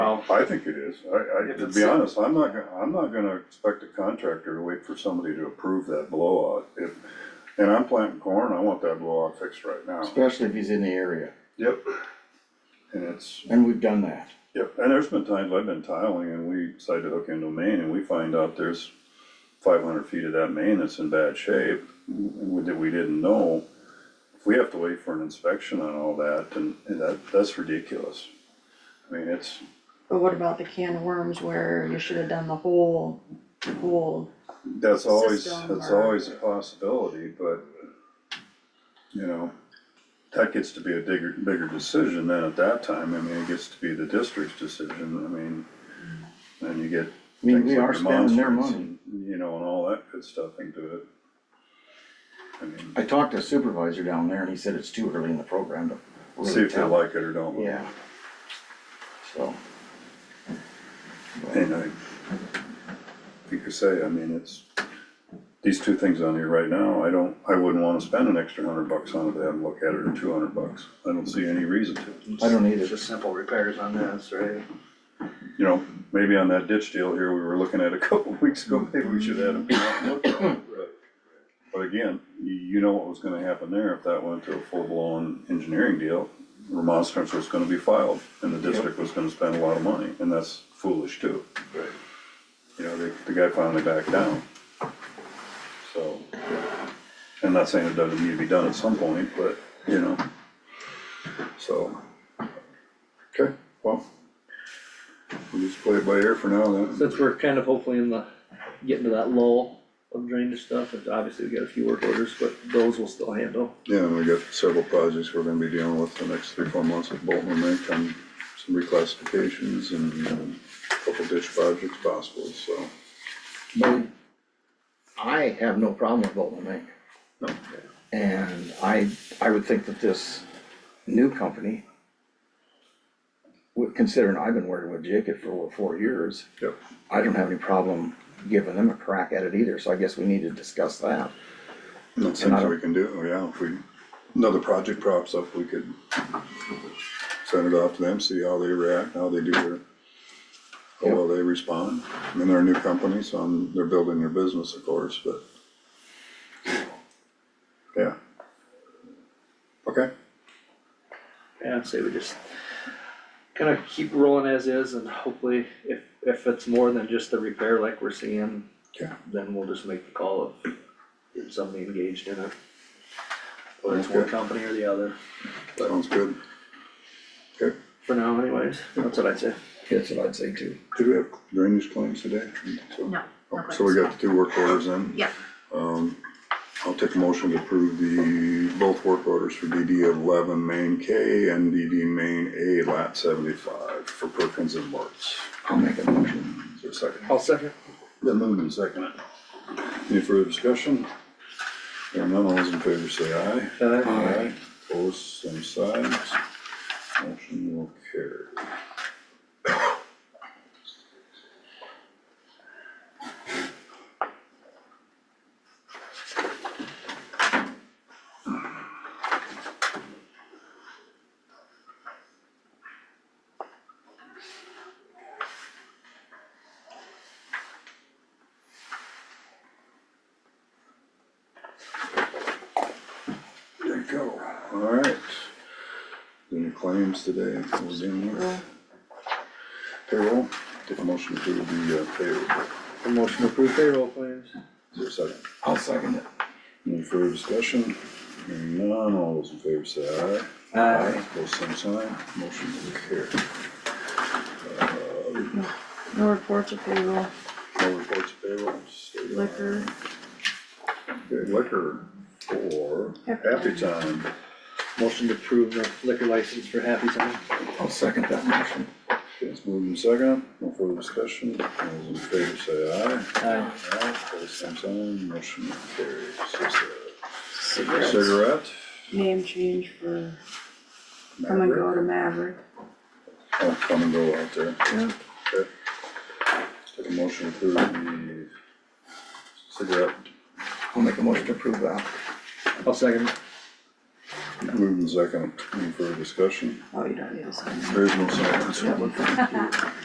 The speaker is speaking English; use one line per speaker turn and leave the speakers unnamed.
I think it is, I, I,
If
to
it's
be
a-
honest, I'm not, gonna- I'm not gonna expect a contractor to wait for somebody to approve that blowout. If, and I'm planting corn, I want that blowout fixed right now.
especially if he's in the area,
Yep. And it's,
and we've done that.
yep, and there's been times I've been tiling and we decide to hook into a main and we find out there's five hundred feet of that main that's in bad shape, w- that we didn't know. If we have to wait for an inspection on all that, then that, that's ridiculous. I mean, it's,
But what about the can of worms where you should have done the whole, the whole,
That's always,
system
that's
or-
always a possibility, but, you know, that gets to be a bigger, bigger decision then at that time, I mean, it gets to be the district's decision, I mean, then you get
I mean,
things
we
like
are spending their
remonstrance
money.
and, You know, and all that good stuff into it. I mean,
I talked to a supervisor down there and he said it's too early in the program to really
see if they
tell.
like it or don't.
Yeah. So,
And I, like I say, I mean, it's, these two things on here right now, I don't, I wouldn't wanna spend an extra hundred bucks on it, to have them look at it, or two hundred bucks, I don't see any reason to.
I don't either.
Just simple repairs on this, right?
You know, maybe on that ditch deal here, we were looking at a couple of weeks ago, maybe we should have them come out and look at it. But again, you, you know what was gonna happen there, if that went to a full-blown engineering deal, remonstrance was gonna be filed, and the district was gonna spend a lot of money, and that's foolish too.
Right.
you know, the, the guy finally backed down. So, I'm not saying it doesn't need to be done at some point, but, you know, so. Okay, well, we'll just play it by ear for now then.
Since we're kind of hopefully in the, getting to that lull of drainage stuff, and obviously we got a few work orders, but those we'll still handle.
Yeah, and we got several projects we're gonna be dealing with the next three, four months with Bolton and Mink on some reclassifications and um, a couple ditch projects possible, so.
But I have no problem with Bolton Mink.
No.
And I, I would think that this new company, with- considering I've been working with Jacob for over four years.
Yep.
I don't have any problem giving them a crack at it either, so I guess we need to discuss that.
That's
And I
things
don't-
we can do, Oh, yeah, if we, another project props up, we could send it off to them, see how they react, how they do their, how well they respond. I mean, they're a new company, so I'm, they're building their business, of course, but. Yeah. Okay,
And I'd say we just kind of keep rolling as is, and hopefully if, if it's more than just the repair like we're seeing,
Yeah.
then we'll just make the call of getting somebody engaged in it. Whether it's one
Okay.
company or the other,
sounds good. Okay,
for now anyways, that's what I'd say.
That's what I'd say too.
did we have drainage claims today? So-
no,
Okay, So we got the two work orders in?
Yeah.
Um, I'll take a motion to approve the, both work orders for DD eleven main K and DD main A lat seventy-five for Perkins and Martz.
I'll make a motion. Oh,
Is there a second?
I'll second.
Then moved and seconded. Any further discussion? Hearing none, all those in favor say aye.
Uh,
Aye. Opposed, same sides. Motion will carry. There you go, alright. Any claims today, what was in there? Payroll, take a motion to approve the uh, payroll.
motion to approve payroll claims.
Is there a second?
I'll second it.
Any further discussion? Hearing none, all those in favor say aye.
Aye.
Both same sign, motion will carry.
no reports of payroll,
No reports of payrolls.
liquor,
Okay, Liquor for
Happy
happy time.
Motion to approve the liquor license for Happy Time.
I'll second that motion.
Okay, It's moved and second, no further discussion, all those in favor say aye.
Aye.
Aye, both same sign, motion will carry. So, uh,
cigarettes,
Cigarette?
name change for come and go to
Maverick?
Maverick.
Oh, come and go out there.
Yeah.
Okay. Take a motion to approve the cigarette
I'll make a motion to approve that.
I'll second.
Moving second, any further discussion?
Oh, you don't need a sign.
There is no silence.
Yeah.